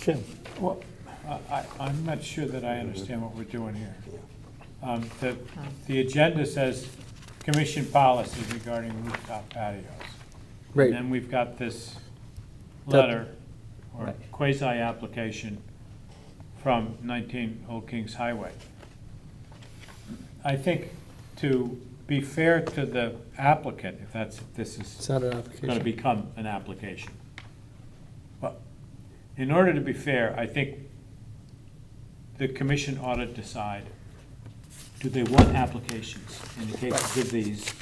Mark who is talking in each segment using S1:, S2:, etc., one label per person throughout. S1: Jim,
S2: Well, I, I- I'm not sure that I understand what we're doing here. Um, The, the agenda says commission policy regarding rooftop patios. And
S1: right,
S2: then we've got this
S1: That-
S2: letter or
S1: Right.
S2: quasi-application from 19 Old Kings Highway. I think to be fair to the applicant, if that's, if this is
S1: it's not an
S2: going to
S1: application.
S2: become an application. But in order to be fair, I think the commission ought to decide, do they want applications in the cases of these,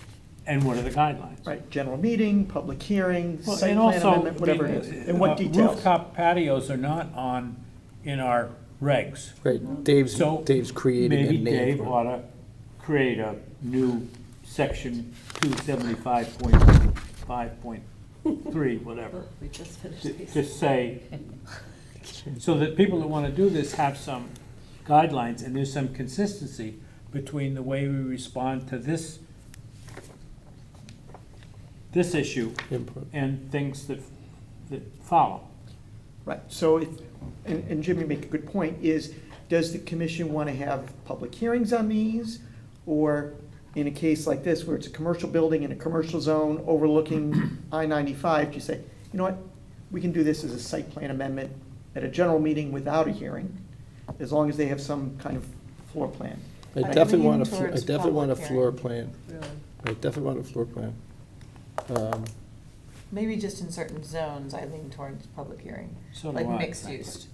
S2: and what are the guidelines?
S3: Right, general meeting, public hearing,
S2: Well,
S3: site
S2: and
S3: plan
S2: also,
S3: amendment, whatever it
S2: the,
S3: is, and what
S2: uh,
S3: details.
S2: Rooftop patios are not on, in our regs.
S1: Right, Dave's,
S2: So
S1: Dave's creating a
S2: Maybe
S1: name.
S2: Dave
S1: for it.
S2: ought to create a new section two seventy-five point five point three, whatever.
S4: We just
S2: to-
S4: finished
S2: to
S4: these.
S2: say, so that people that want to do this have some guidelines and there's some consistency between the way we respond to this, this issue
S1: Input.
S2: and things that, that follow.
S3: Right, so if, and, and Jim, you make a good point, is, does the commission want to have public hearings on these? Or in a case like this, where it's a commercial building in a commercial zone overlooking I ninety-five, do you say, you know what? We can do this as a site plan amendment at a general meeting without a hearing, as long as they have some kind of floor plan.
S1: I
S4: I
S1: definitely
S4: lean
S1: want a, fl- I
S4: towards
S1: definitely want a
S4: public
S1: floor
S4: hearing.
S1: plan, I definitely want a floor plan. Um,
S4: Maybe just in certain zones, I lean towards public hearing,
S2: So do
S4: like
S2: I.
S4: mixed use.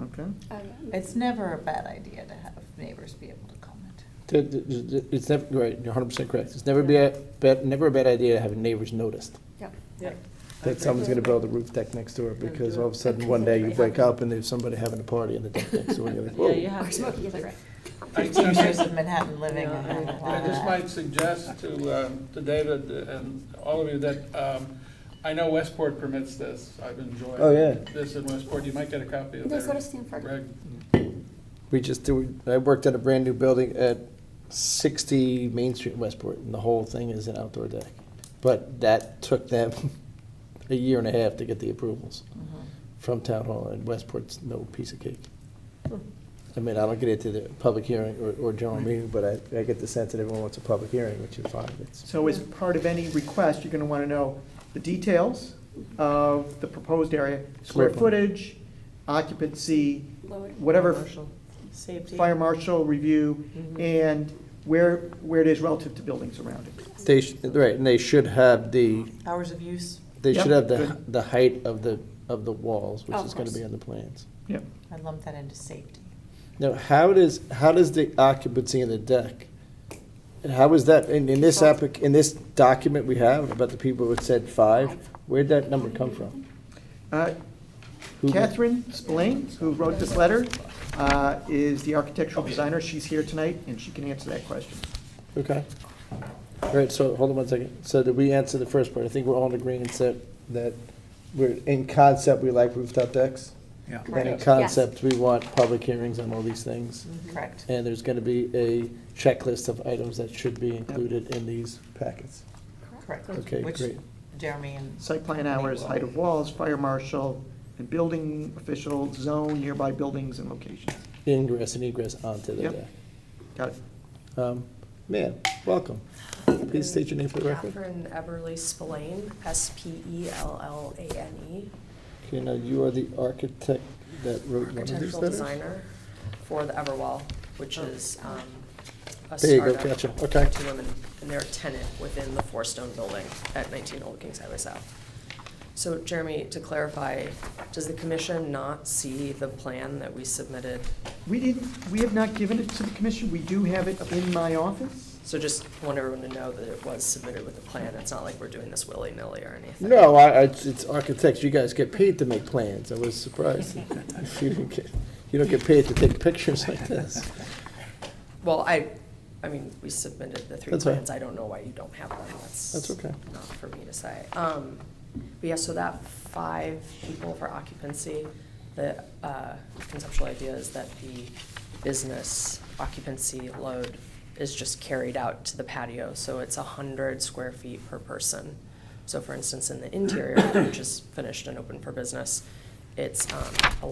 S3: Okay,
S4: It's never a bad idea to have neighbors be able to comment.
S1: th- th- th- It's never, right, you're hundred percent correct, it's never be, a bad- never a bad idea to have neighbors noticed.
S4: Yeah.
S1: That someone's gonna build a roof deck next door, because all of a sudden, one day you wake up and there's somebody having a party in the deck next door, and you're like,
S5: Yeah, you
S1: whoa.
S5: have to.
S4: Fifteen years of Manhattan living. I have a lot
S6: I
S4: of
S6: just
S4: that.
S6: might suggest to, um, to David and all of you that, um, I know Westport permits this. I've enjoyed
S1: Oh, yeah.
S6: this in Westport. You might get a copy of
S7: There's
S6: their
S7: go to Stanford.
S6: reg.
S1: We just, do- I worked at a brand-new building at sixty Main Street in Westport, and the whole thing is an outdoor deck. But that took them a year and a half to get the approvals
S4: Mm-hmm.
S1: from Town Hall, and Westport's no piece of cake. I mean, I don't get into the public hearing or, or general meeting, but I, I get the sense that everyone wants a public hearing, which is fine, it's,
S3: so as part of any request, you're gonna wanna know the details of the proposed area,
S1: Square
S3: square
S1: footage.
S3: footage, occupancy, whatever
S5: Safety.
S3: fire marshal review, and where, where it is relative to buildings around it.
S1: they, sh- right, and they should have the,
S4: Hours of use,
S1: they should have
S3: Yep.
S1: the, the height of the, of the walls, which
S7: Of
S1: is gonna be
S7: course.
S1: on the plans.
S3: Yep.
S4: I lump that into safety.
S1: Now, how does, how does the occupancy in the deck, and how is that, in, in this applic, in this document we have about the people who said five, where'd that number come from?
S3: Uh,
S1: Who-
S3: Catherine Spillane, who wrote this letter, uh, is the architectural designer. She's here tonight, and she can answer that question.
S1: Okay. All right, so, hold on one second. So did we answer the first part? I think we're all in agreement that, that we're, in concept, we like rooftop decks.
S2: Yeah.
S1: And in
S4: Correct.
S1: concept, we want public hearings on all these things.
S4: Correct.
S1: And there's gonna be a checklist of items that should be included in these packets.
S4: Correct.
S1: Okay,
S4: Which
S1: great.
S4: Jeremy and
S3: Site plan hours, height of walls, fire marshal, and building official, zone, nearby buildings and locations.
S1: Ingress and egress onto the
S3: Yep.
S1: deck.
S3: Got it?
S1: Um, Ma'am, welcome. Please state your name for the record.
S8: Catherine Eberly Spillane, E S-P-E-L-L-A-N-E,
S1: Okay, now you are the architect that wrote one of these
S8: architectural
S1: letters?
S8: designer for the Everwell, which is um, a
S1: There you go,
S8: startup.
S1: gotcha, okay.
S8: Two women, and they're a tenant within the Four Stone Building at 19 Old Kings Highway South. So Jeremy, to clarify, does the commission not see the plan that we submitted?
S3: We didn't, we have not given it to the commission. We do have it in my office.
S8: So just want everyone to know that it was submitted with a plan. It's not like we're doing this willy-nilly or anything.
S1: No, I, I- it's it's architects, you guys get paid to make plans, I was surprised. You don't get- you don't get paid to take pictures like this.
S8: Well, I, I mean, we submitted the three
S1: That's fine.
S8: plans, I don't know why you don't have them, that's.
S1: That's okay.
S8: Not for me to say. Um, but yeah, so that five people for occupancy, the, uh, conceptual idea is that the business occupancy load is just carried out to the patio, so it's a hundred square feet per person. So for instance, in the interior, which is finished and open for business, it's, um,